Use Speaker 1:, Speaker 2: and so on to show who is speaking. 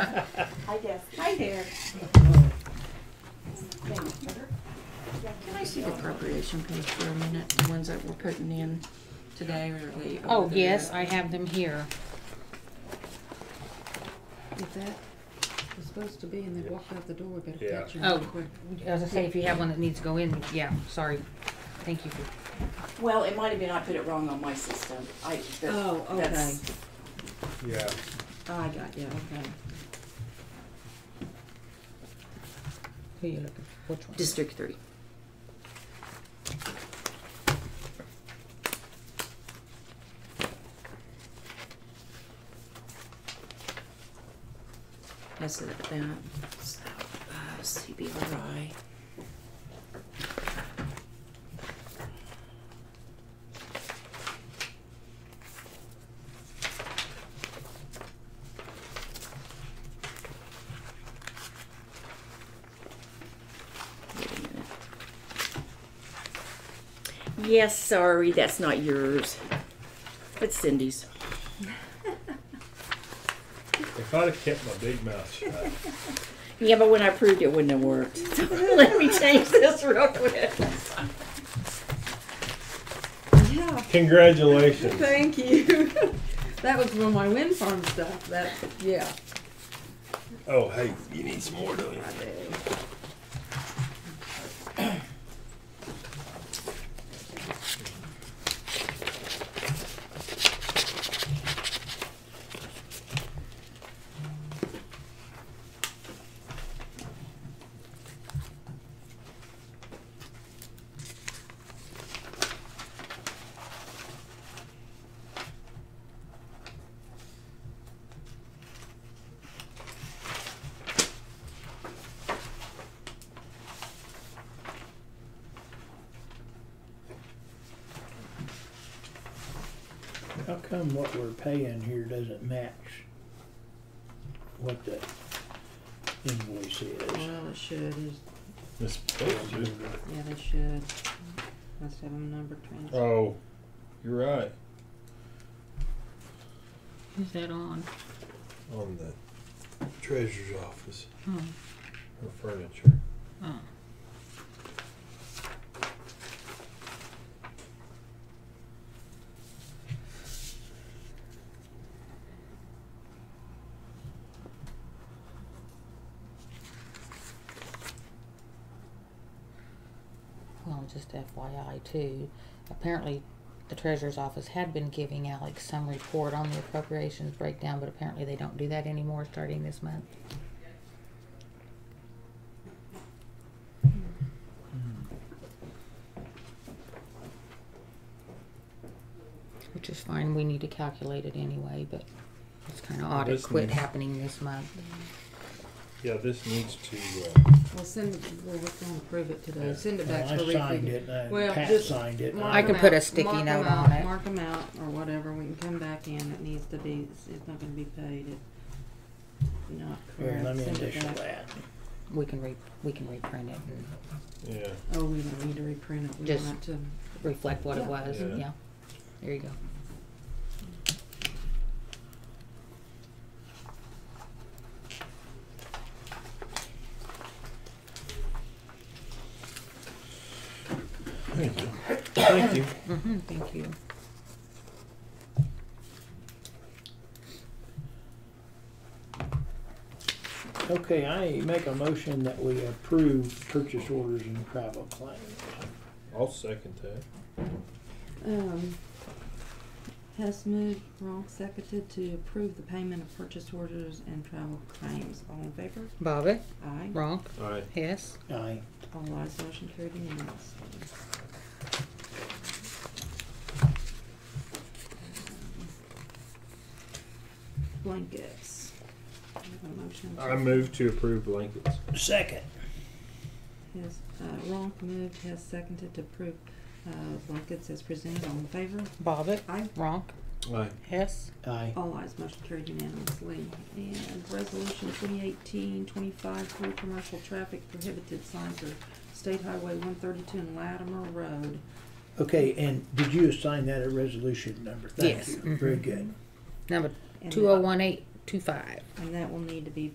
Speaker 1: I guess. Hi there. Can I see
Speaker 2: The appropriation page for a minute, the ones that we're putting in today or we.
Speaker 3: Oh, yes, I have them here.
Speaker 4: If that was supposed to be and they walked out the door, we better
Speaker 5: Yeah.
Speaker 4: catch them
Speaker 3: Oh,
Speaker 4: real quick.
Speaker 3: as I say, if you have one that needs to go in, yeah, sorry. Thank you. for-
Speaker 1: Well, it might have been I put it wrong on my system. I, that-
Speaker 4: Oh, okay.
Speaker 1: that's-
Speaker 5: Yeah,
Speaker 4: Oh, I got you, okay.
Speaker 3: Who you looking for? Which one?
Speaker 2: District three. That's it, that, so, uh, CBRI. Wait a minute.
Speaker 1: Yes, sorry, that's not yours. It's Cindy's.
Speaker 5: if I'd have kept my big mouth shut,
Speaker 1: Yeah, but when I proved it, wouldn't have worked. So Let me change this real quick.
Speaker 4: Yeah,
Speaker 5: congratulations.
Speaker 4: thank you. That was for my wind farm stuff, that, yeah.
Speaker 5: Oh, hey, you need some more, don't you?
Speaker 6: How come what we're paying here doesn't match what the invoice is?
Speaker 4: Well, it should, is,
Speaker 5: It's supposed to.
Speaker 4: yeah, they should. Must have them numbered trans.
Speaker 5: Oh, you're right.
Speaker 3: Is that on?
Speaker 5: On the treasurer's office,
Speaker 6: Hmm.
Speaker 3: Oh,
Speaker 5: her furniture.
Speaker 3: oh. Well, just FYI too, apparently the treasurer's office had been giving Alex some report on the appropriations breakdown, but apparently they don't do that anymore starting this month. Which is fine, we need to calculate it anyway, but it's kinda odd it
Speaker 5: This
Speaker 3: quit
Speaker 5: needs-
Speaker 3: happening this month.
Speaker 5: Yeah, this needs to, uh,
Speaker 4: Well, send, it- well, we're gonna approve it today,
Speaker 5: Yeah.
Speaker 4: send it back
Speaker 6: Well, I
Speaker 4: for
Speaker 6: signed
Speaker 4: refigure.
Speaker 6: it, and
Speaker 4: Well,
Speaker 6: Pat
Speaker 4: just
Speaker 6: signed it.
Speaker 4: Mark
Speaker 3: I could
Speaker 4: them
Speaker 3: put a
Speaker 4: out,
Speaker 3: sticky
Speaker 4: mark
Speaker 3: note
Speaker 4: them
Speaker 3: on
Speaker 4: out,
Speaker 3: it.
Speaker 4: Mark them out or whatever, we can come back in, it needs to be, it's it's not gonna be paid, it, not
Speaker 6: Here,
Speaker 4: correct.
Speaker 6: let me
Speaker 4: Send it
Speaker 6: initial
Speaker 4: back.
Speaker 6: that.
Speaker 3: We can re, we can reprint it and
Speaker 5: yeah,
Speaker 4: Oh, we don't need to reprint it, we
Speaker 3: Just-
Speaker 4: want it to,
Speaker 3: reflect what it
Speaker 4: Yeah.
Speaker 3: was,
Speaker 5: Yeah.
Speaker 3: yeah. There you go.
Speaker 5: thank you. Thank you.
Speaker 3: Mm-hmm, thank you.
Speaker 6: Okay, I make a motion that we approve purchase orders and travel claims.
Speaker 5: I'll second that.
Speaker 4: um, Hess moved, Ronk seconded to approve the payment of purchase orders and travel claims, all in favor?
Speaker 3: Bobbit,
Speaker 4: Aye,
Speaker 3: Ronk,
Speaker 5: Aye.
Speaker 3: Hess.
Speaker 6: Aye.
Speaker 4: all ayes, motion carried unanimously. Blankets. I have a motion to-
Speaker 5: I move to approve blankets.
Speaker 6: Second.
Speaker 4: Yes, uh, Ronk moved, Hess seconded to approve, uh, blankets as presented, all in favor?
Speaker 3: Bobbit,
Speaker 4: Aye.
Speaker 3: Ronk,
Speaker 5: Aye.
Speaker 3: Hess.
Speaker 6: Aye.
Speaker 4: All eyes motion carried unanimously. And resolution 2018-25 for commercial traffic prohibited signs for State Highway 132 and Latimer Road.
Speaker 6: Okay, and did you assign that a resolution number? Thank
Speaker 3: Yes. Mm-hmm.
Speaker 6: you. Very good.
Speaker 3: Number
Speaker 4: And
Speaker 3: two oh one eight two five.
Speaker 4: that- And that will need to be